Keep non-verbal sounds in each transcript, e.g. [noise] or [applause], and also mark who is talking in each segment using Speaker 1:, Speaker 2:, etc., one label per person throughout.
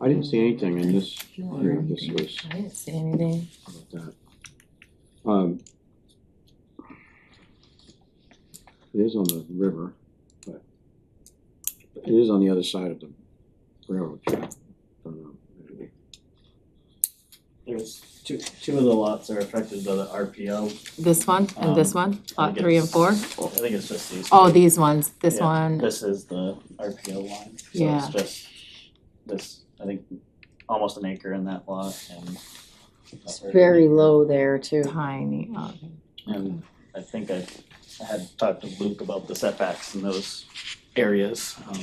Speaker 1: I didn't see anything in this, here, this was.
Speaker 2: I didn't see anything.
Speaker 1: about that. Um, It is on the river, but it is on the other side of the railroad track. Don't know.
Speaker 3: There's two, two of the lots are affected by the RPO.
Speaker 2: This one and
Speaker 1: Um,
Speaker 2: this one,
Speaker 3: I
Speaker 2: lot
Speaker 3: think
Speaker 2: three and four?
Speaker 3: I think it's just these.
Speaker 2: Oh,
Speaker 3: two.
Speaker 2: these ones, this
Speaker 3: Yeah.
Speaker 2: one,
Speaker 3: This is the RPO line, so
Speaker 2: Yeah.
Speaker 3: it's just this, I think, almost an acre in that lot and.
Speaker 4: It's very
Speaker 3: low.
Speaker 4: low there too.
Speaker 2: tiny, oh,
Speaker 3: And I think I I had talked to Luke about the setbacks in those areas, um.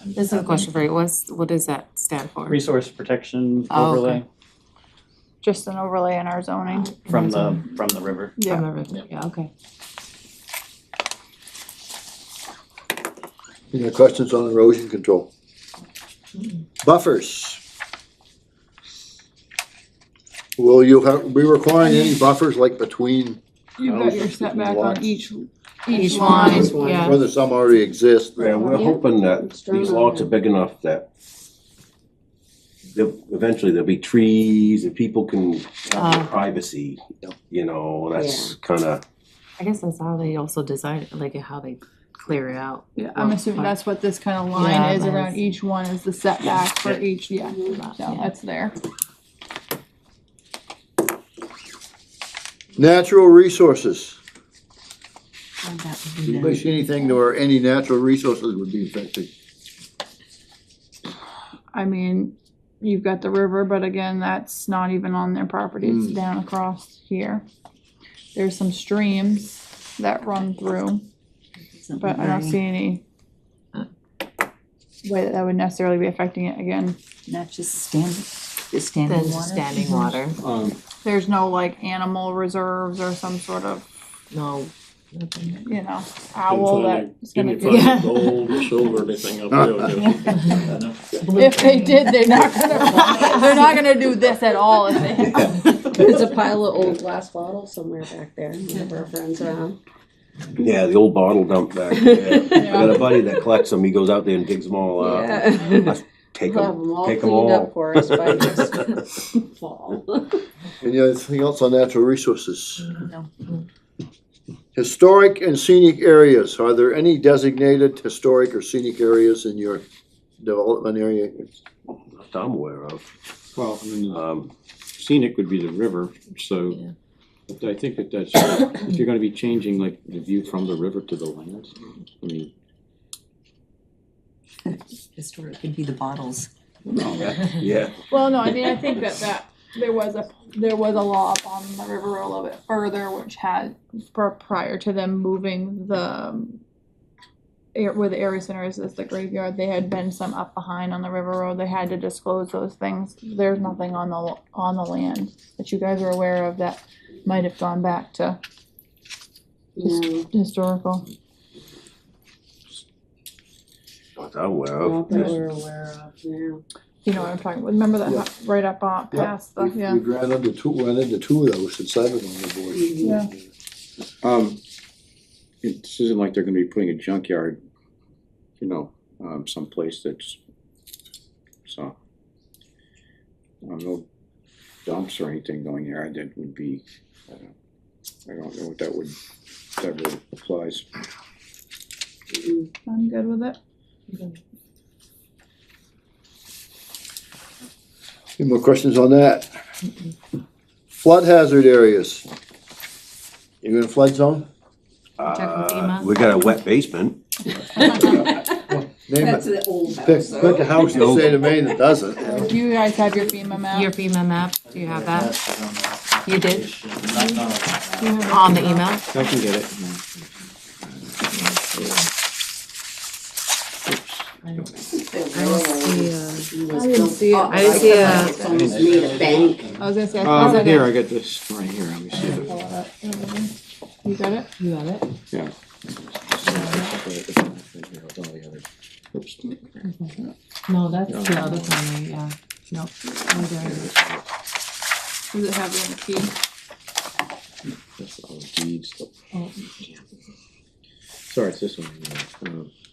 Speaker 3: and
Speaker 2: This is a
Speaker 3: having
Speaker 2: question for you, what's, what does that stand for?
Speaker 3: Resource protection
Speaker 2: Oh, okay.
Speaker 3: overlay
Speaker 5: just an overlay in our zoning.
Speaker 3: from the, from the river.
Speaker 2: From everything, yeah, okay.
Speaker 6: Any other questions on erosion control? Buffers. Will you have, be requiring any buffers like between,
Speaker 5: You've got your setback
Speaker 6: Lots.
Speaker 5: on each,
Speaker 2: Each
Speaker 5: each
Speaker 2: line,
Speaker 5: line.
Speaker 4: Each one.
Speaker 2: yeah,
Speaker 6: whether some already exist?
Speaker 7: Yeah, we're
Speaker 4: Yeah.
Speaker 7: hoping that
Speaker 4: It's drawn
Speaker 7: these
Speaker 4: on
Speaker 7: lots are
Speaker 4: there.
Speaker 7: big enough that there'll- eventually there'll be trees and people can have
Speaker 2: Ah.
Speaker 7: their privacy, you know, that's kinda,
Speaker 2: I guess that's how they also design, it, like how they clear it out.
Speaker 5: Yeah, I'm assuming that's what this kind of
Speaker 2: Yeah,
Speaker 5: line is
Speaker 2: that
Speaker 5: around
Speaker 2: is.
Speaker 5: each one is the setback for
Speaker 3: Yeah.
Speaker 5: each, yeah,
Speaker 2: Yeah.
Speaker 5: so that's there.
Speaker 6: Natural resources.
Speaker 8: Oh,
Speaker 2: That would be
Speaker 6: Anybody see anything where any natural resources would be affected?
Speaker 5: I mean, you've got the river, but again, that's not even on their property, it's
Speaker 6: Mm.
Speaker 5: down across here. There's some streams that run through,
Speaker 2: nice.
Speaker 5: but I don't see any way that that would necessarily be affecting it again.
Speaker 8: Not just standing, the
Speaker 2: Then
Speaker 8: standing
Speaker 2: just
Speaker 8: water.
Speaker 2: standing water,
Speaker 1: Um,
Speaker 5: There's no like animal reserves or some sort of,
Speaker 2: no, nothing.
Speaker 5: you know, owl
Speaker 9: find
Speaker 5: that's
Speaker 9: Can
Speaker 5: gonna
Speaker 9: you
Speaker 5: be. [laughs]
Speaker 2: Yeah.
Speaker 9: find gold or silver, anything up there? Just-
Speaker 5: If they did, they're not
Speaker 8: [laughs]
Speaker 6: [laughs]
Speaker 5: gonna, [laughs] they're not gonna do this at all if they
Speaker 4: There's a pile of old glass bottles somewhere back there, whenever our friends are on.
Speaker 7: yeah, the old bottle dump back there.
Speaker 5: [laughs]
Speaker 7: I got a buddy that collects them, he goes out there and digs them all up,
Speaker 4: Yeah.
Speaker 7: take
Speaker 4: We'll have
Speaker 7: them,
Speaker 4: them all
Speaker 7: take them
Speaker 4: cleaned up
Speaker 7: all.
Speaker 4: for us
Speaker 7: [laughs]
Speaker 4: by next fall.
Speaker 6: Any other thing else on natural resources?
Speaker 8: No.
Speaker 6: Historic and scenic areas, are there any designated historic or scenic areas in your development area?
Speaker 7: Not that I'm aware of,
Speaker 1: well, I mean, uh,
Speaker 7: um,
Speaker 1: scenic would be the river,
Speaker 2: Yeah.
Speaker 1: so but I think that that's, if you're gonna be changing like the view from the river to the land, I mean,
Speaker 8: Historic could be the bottles.
Speaker 7: yeah.
Speaker 5: Well, no, I mean, I think that that, there was a, there was a law up on the river a little bit further, which had, for, prior to them moving the, um, air- where the area center is, is the graveyard, they had been some up behind on the river road, they had to disclose those things. There's nothing on the, on the land that you guys are aware of that might have gone back to
Speaker 4: No,
Speaker 5: historical.
Speaker 7: Not that I'm aware
Speaker 4: not
Speaker 7: of,
Speaker 4: that
Speaker 7: Oh, Just-
Speaker 4: we're aware of, yeah.
Speaker 5: You know what I'm talking, about? remember that,
Speaker 6: Yeah.
Speaker 5: hu- right up on,
Speaker 6: Yeah.
Speaker 5: past the, Oh, yeah.
Speaker 6: We've ran into two, run into two of those since I've been on the board.
Speaker 5: Yeah.
Speaker 1: um, it this isn't like they're gonna be putting a junkyard, you know, um, someplace that's, so. I don't know, dumps or anything going there, that would be, I don't, I don't know what that would, that really applies.
Speaker 5: I'm good with it.
Speaker 6: Any more questions on that? Flood hazard areas. You in a flood zone?
Speaker 2: Check with
Speaker 7: uh,
Speaker 2: FEMA.
Speaker 7: we got a wet basement.
Speaker 6: Name
Speaker 4: That's the
Speaker 6: it.
Speaker 4: old
Speaker 6: Pick,
Speaker 4: house.
Speaker 6: pick a house in the state of Maine that doesn't.
Speaker 5: Do you guys have your FEMA map?
Speaker 2: Your FEMA map, do you have that
Speaker 3: that?
Speaker 2: You did?
Speaker 3: Not, not on that.
Speaker 5: You have your
Speaker 2: on the
Speaker 5: FEMA
Speaker 2: email?
Speaker 1: I can get it.
Speaker 2: I
Speaker 4: didn't
Speaker 5: see it.
Speaker 2: I didn't see a-
Speaker 4: It's almost made a bank.
Speaker 5: I was gonna say, I thought
Speaker 1: Um,
Speaker 5: that.
Speaker 1: here, I got this right here, let me see if it-
Speaker 5: You got it?
Speaker 2: You have it?
Speaker 1: yeah. Oops.
Speaker 2: No, that's
Speaker 1: No.
Speaker 2: the other corner, yeah, no. Oh, there it is.
Speaker 5: Does it have it in the key?
Speaker 1: That's all deeds.
Speaker 2: Oh.
Speaker 1: Sorry, it's this one. yeah. Um,